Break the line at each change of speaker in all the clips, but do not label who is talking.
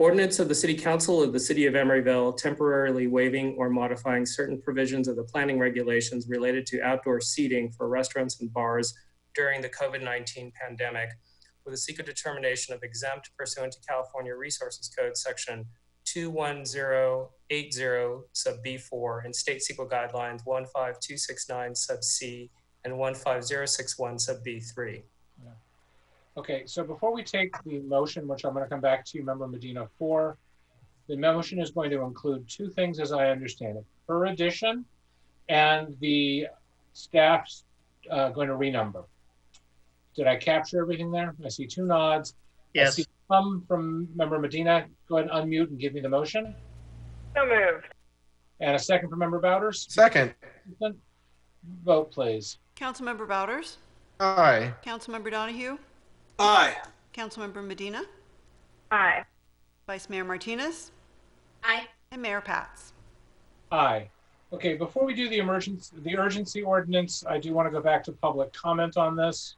Ordinance of the City Council of the City of Emeryville temporarily waiving or modifying certain provisions of the planning regulations related to outdoor seating for restaurants and bars during the COVID 19 pandemic with a secret determination of exempt pursuant to California Resources Code Section 21080 sub B4 and State Sequel Guidelines 15269 sub C and 15061 sub B3.
Okay, so before we take the motion, which I'm going to come back to Member Medina for, the motion is going to include two things as I understand it. Her addition and the staff's uh, going to renumber. Did I capture everything there? I see two nods. I
Yes,
see Some from Member Medina. Go ahead and unmute and give me the motion.
So moved.
And a second from Member Bowders.
Second,
Vote, please.
Councilmember Bowders,
aye.
Councilmember Donahue,
aye,
Councilmember Medina,
Aye.
Vice Mayor Martinez,
Aye.
and Mayor Pats.
Aye. Okay, before we do the emergency, the urgency ordinance, I do want to go back to public comment on this.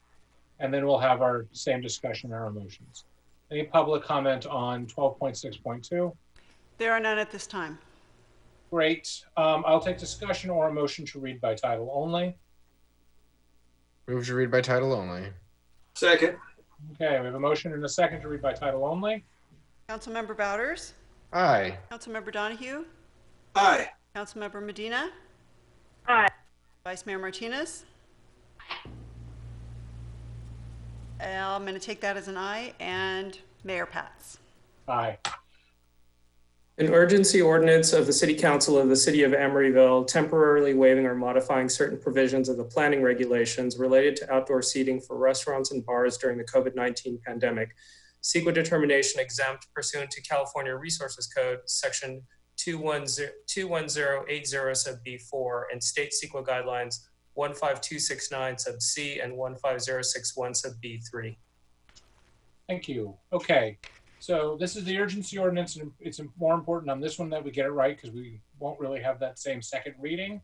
And then we'll have our same discussion, our emotions. Any public comment on twelve point six point two?
There are none at this time.
Great. Um, I'll take discussion or a motion to read by title only.
Move to read by title only.
second,
Okay, we have a motion and a second to read by title only.
Councilmember Bowders,
Aye.
Councilmember Donahue,
aye,
Councilmember Medina,
Aye.
Vice Mayor Martinez. I'm going to take that as an aye, and Mayor Pats.
Aye.
An urgency ordinance of the City Council of the City of Emeryville temporarily waiving or modifying certain provisions of the planning regulations related to outdoor seating for restaurants and bars during the COVID 19 pandemic. Sequel determination exempt pursuant to California Resources Code, Section 210 21080 sub B4, and State Sequel Guidelines 15269 sub C and 15061 sub B3.
Thank you. Okay, so this is the urgency ordinance, and it's more important on this one that we get it right because we won't really have that same second reading.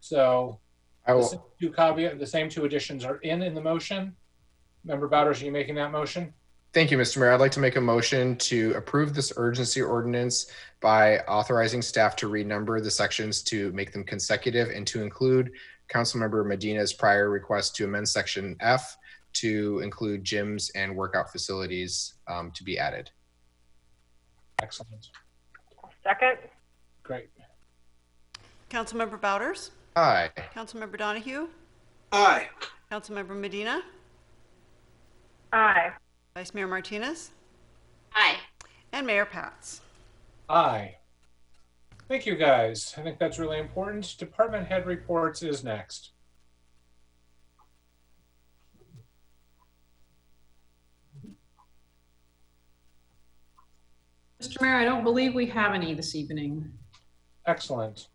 So
I
the same
will.
two caveat, the same two additions are in in the motion. Member Bowders, are you making that motion?
Thank you, Mr. Mayor. I'd like to make a motion to approve this urgency ordinance by authorizing staff to renumber the sections to make them consecutive and to include Councilmember Medina's prior request to amend section F to include gyms and workout facilities um, to be added.
Excellent.
Second?
Great.
Councilmember Bowders,
Aye.
Councilmember Donahue,
aye,
Councilmember Medina,
Aye.
Vice Mayor Martinez,
Aye.
and Mayor Pats.
Aye. Thank you, guys. I think that's really important. Department head reports is next.
Mr. Mayor, I don't believe we have any this evening.
Excellent.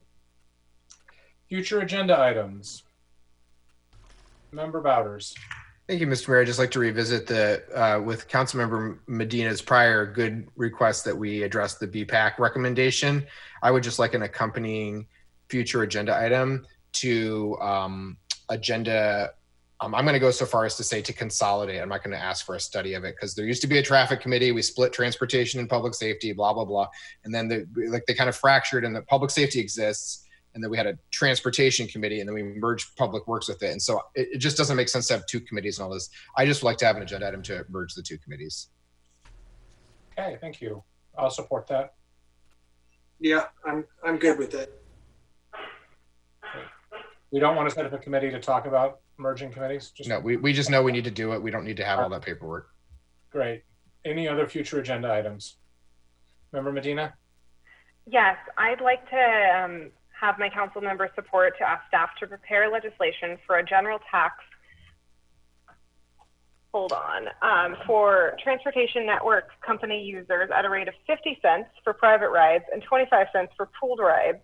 Future agenda items. Member Bowders.
Thank you, Mr. Mayor. I'd just like to revisit the, uh, with Councilmember Medina's prior good request that we address the BPAC recommendation. I would just like an accompanying future agenda item to um, agenda. Um, I'm going to go so far as to say to consolidate. I'm not going to ask for a study of it because there used to be a traffic committee. We split transportation and public safety, blah blah blah, and then the, like they kind of fractured, and the public safety exists and then we had a transportation committee and then we merged public works with it and so it, it just doesn't make sense to have two committees and all this i just would like to have an agenda item to merge the two committees
Okay, thank you. I'll support that.
yeah, I'm, I'm good with that,
We don't want to set up a committee to talk about merging committees. Just
no we, we just know we need to do it we don't need to have all that paperwork
Great. Any other future agenda items? Member Medina?
Yes, I'd like to um, have my council member support to ask staff to prepare legislation for a general tax. Hold on. Um, for transportation network company users at a rate of 50 cents for private rides and 25 cents for pooled rides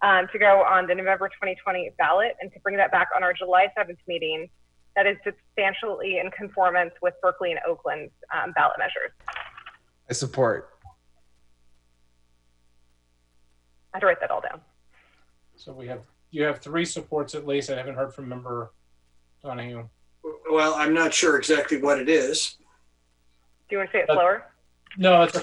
um, to go on the November 2020 ballot and to bring that back on our July 7th meeting that is substantially in conformance with Berkeley and Oakland's um, ballot measures.
i support
I had to write that all down.
So we have, you have three supports at least. I haven't heard from Member Donahue.
well, I'm not sure exactly what it is.
Do you want to say it
Uh,
slower?
No, it's